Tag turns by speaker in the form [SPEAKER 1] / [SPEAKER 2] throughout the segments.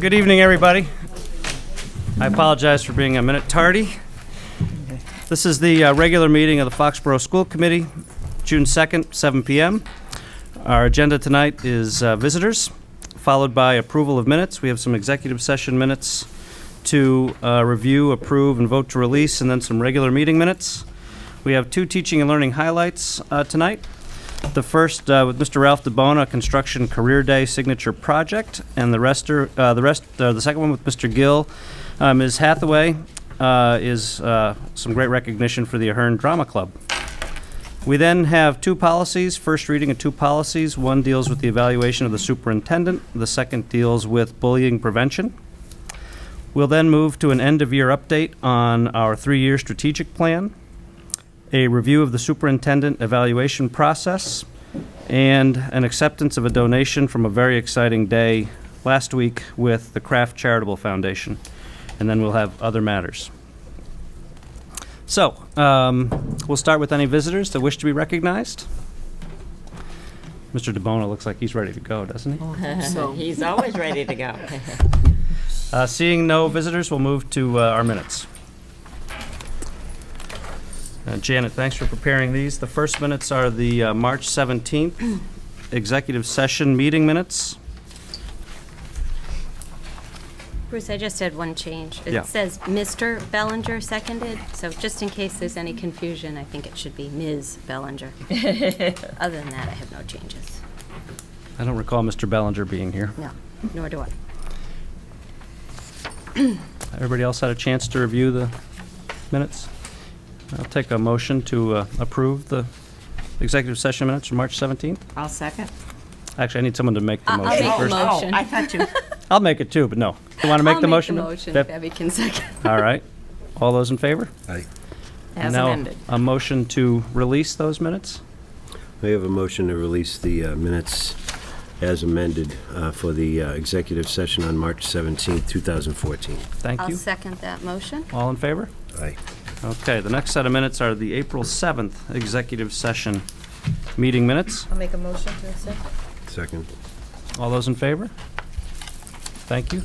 [SPEAKER 1] Good evening, everybody. I apologize for being a minute tardy. This is the uh, regular meeting of the Foxborough School Committee, June 2nd, 7 PM. Our agenda tonight is uh, visitors, followed by approval of minutes. We have some executive session minutes to uh, review, approve, and vote to release, and then some regular meeting minutes. We have two teaching and learning highlights uh, tonight. The first uh, with Mr. Ralph DeBona, Construction Career Day Signature Project, and the rest, are- uh, the rest, uh, the second one with Mr. Gill, uh, Ms. Hathaway, uh, is uh, some great recognition for the Ahern Drama Club. We then have two policies, first reading of two policies. One deals with the evaluation of the superintendent, the second deals with bullying prevention. We'll then move to an end-of-year update on our three-year strategic plan a review of the superintendent evaluation process, and an acceptance of a donation from a very exciting day last week with the Kraft Charitable Foundation. And then we'll have other matters. So, um, we'll start with any visitors that wish to be recognized. Mr. DeBona looks like he's ready to go, doesn't he?
[SPEAKER 2] He's always ready to go.
[SPEAKER 1] Uh, Seeing no visitors, we'll move to uh, our minutes. Uh, Janet, thanks for preparing these. The first minutes are the uh, March 17th executive session meeting minutes.
[SPEAKER 3] Bruce, I just had one change.
[SPEAKER 1] Yeah.
[SPEAKER 3] It says Mr. Bellinger seconded, so just in case there's any confusion, I think it should be Ms. Bellinger. Other than that, I have no changes.
[SPEAKER 1] I don't recall Mr. Bellinger being here.
[SPEAKER 3] No, nor do I.
[SPEAKER 1] Everybody else had a chance to review the minutes? I'll take a motion to uh, approve the executive session minutes from March 17th.
[SPEAKER 2] I'll second.
[SPEAKER 1] Actually, I need someone to make the
[SPEAKER 3] I'll
[SPEAKER 1] motion
[SPEAKER 3] make the
[SPEAKER 1] first.
[SPEAKER 3] mo- Motion.
[SPEAKER 2] Oh, I thought you,
[SPEAKER 1] I'll make it too, but no. You want to make the motion?
[SPEAKER 3] I'll make the motion,
[SPEAKER 1] Deb?
[SPEAKER 3] Debbie can second.
[SPEAKER 1] All right. All those in favor?
[SPEAKER 2] as
[SPEAKER 1] now
[SPEAKER 2] amended.
[SPEAKER 1] a motion to release those minutes.
[SPEAKER 4] May I have a motion to release the uh, minutes as amended uh, for the uh, executive session on March 17, 2014?
[SPEAKER 1] Thank
[SPEAKER 3] I'll
[SPEAKER 1] you.
[SPEAKER 3] second that motion.
[SPEAKER 1] All in favor?
[SPEAKER 4] Aye.
[SPEAKER 1] Okay, the next set of minutes are the April 7th executive session meeting minutes.
[SPEAKER 5] I'll make a motion to accept.
[SPEAKER 4] Second.
[SPEAKER 1] All those in favor? Thank you.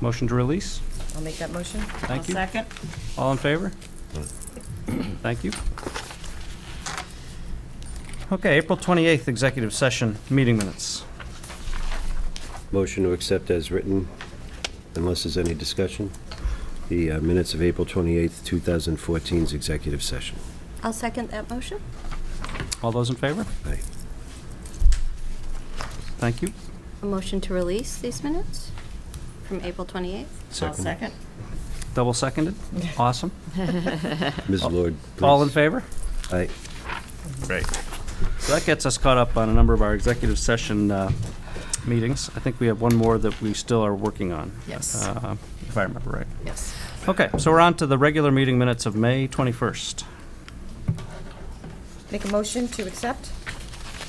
[SPEAKER 1] Motion to release.
[SPEAKER 5] I'll make that motion.
[SPEAKER 2] I'll
[SPEAKER 1] Thank you.
[SPEAKER 2] second.
[SPEAKER 1] All in favor? Thank you. Okay, April 28th executive session meeting minutes.
[SPEAKER 4] Motion to accept as written, unless there's any discussion, the uh, minutes of April 28, 2014's executive session.
[SPEAKER 3] I'll second that motion.
[SPEAKER 1] All those in favor?
[SPEAKER 4] Aye.
[SPEAKER 1] Thank you.
[SPEAKER 3] A motion to release these minutes from April 28th.
[SPEAKER 2] I'll second.
[SPEAKER 1] Double seconded. Awesome.
[SPEAKER 4] Ms. Lord, please.
[SPEAKER 1] All in favor?
[SPEAKER 4] Aye.
[SPEAKER 1] Great. So that gets us caught up on a number of our executive session uh, meetings. I think we have one more that we still are working on.
[SPEAKER 2] Yes.
[SPEAKER 1] uh, If I remember right.
[SPEAKER 2] Yes.
[SPEAKER 1] Okay, so we're on to the regular meeting minutes of May 21st.
[SPEAKER 5] Make a motion to accept.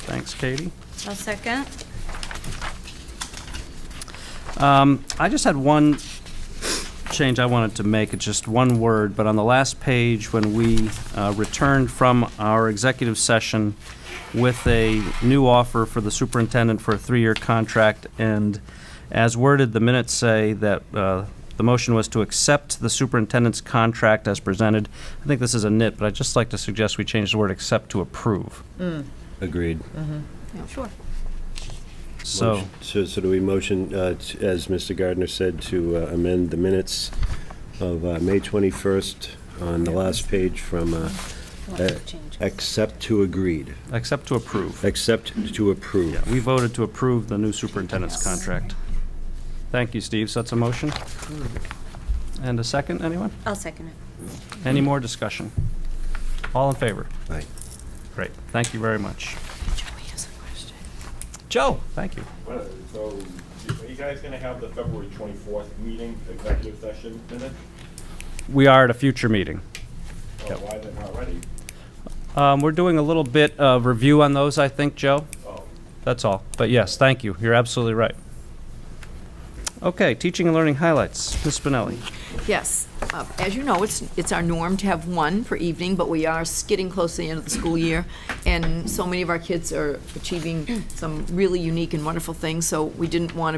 [SPEAKER 1] Thanks, Katie.
[SPEAKER 3] I'll second.
[SPEAKER 1] Um, I just had one change I wanted to make, it's just one word, but on the last page, when we uh, returned from our executive session with a new offer for the superintendent for a three-year contract, and as worded, the minutes say that uh, the motion was to accept the superintendent's contract as presented. I think this is a nit, but I'd just like to suggest we change the word accept to approve.
[SPEAKER 4] Agreed.
[SPEAKER 1] Uh,
[SPEAKER 3] Sure.
[SPEAKER 1] So,
[SPEAKER 4] Motion- So so do we motion, uh, t- as Mr. Gardner said, to uh, amend the minutes of uh, May 21st on the last page from uh, uh, accept to agreed,
[SPEAKER 1] accept to approve.
[SPEAKER 4] accept to approve.
[SPEAKER 1] We voted to approve the new superintendent's contract. Thank you, Steve. So that's a motion. And a second, anyone?
[SPEAKER 3] I'll second it.
[SPEAKER 1] Any more discussion? All in favor?
[SPEAKER 4] Aye.
[SPEAKER 1] Great. Thank you very much. Joe, thank you.
[SPEAKER 6] Well, So, are you guys gonna have the February twenty-fourth meeting, executive session minute?
[SPEAKER 1] We are at a future meeting.
[SPEAKER 6] Or Uh, why they're not ready?
[SPEAKER 1] Um, We're doing a little bit of review on those, I think, Joe.
[SPEAKER 6] Oh,
[SPEAKER 1] That's all. But yes, thank you. You're absolutely right. Okay, teaching and learning highlights. Ms. Spinelli.
[SPEAKER 7] Yes. Uh, As you know, it's, it's our norm to have one per evening, but we are skidding close to the end of the school year, and so many of our kids are achieving some really unique and wonderful things, so we didn't want to